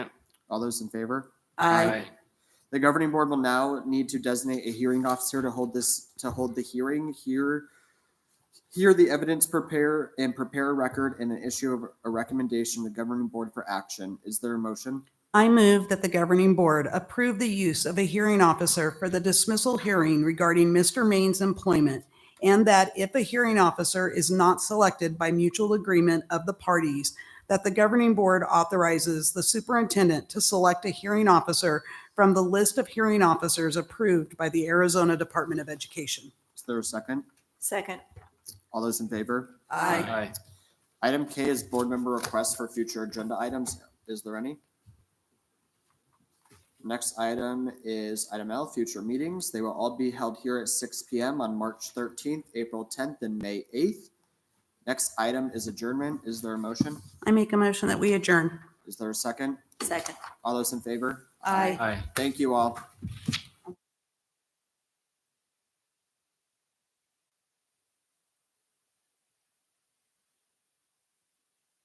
All those in favor? Aye. The governing board will now need to designate a hearing officer to hold this, to hold the hearing, hear, hear the evidence, prepare, and prepare a record and an issue of a recommendation to the governing board for action. Is there a motion? I move that the governing board approve the use of a hearing officer for the dismissal hearing regarding Mr. Main's employment, and that if a hearing officer is not selected by mutual agreement of the parties, that the governing board authorizes the superintendent to select a hearing officer from the list of hearing officers approved by the Arizona Department of Education. Is there a second? Second. All those in favor? Item K is board member requests for future agenda items. Is there any? Next item is item L, future meetings. They will all be held here at six PM on March thirteenth, April tenth, and May eighth. Next item is adjournment. Is there a motion? I make a motion that we adjourn. Is there a second? Second. All those in favor? Aye. Aye. Thank you all.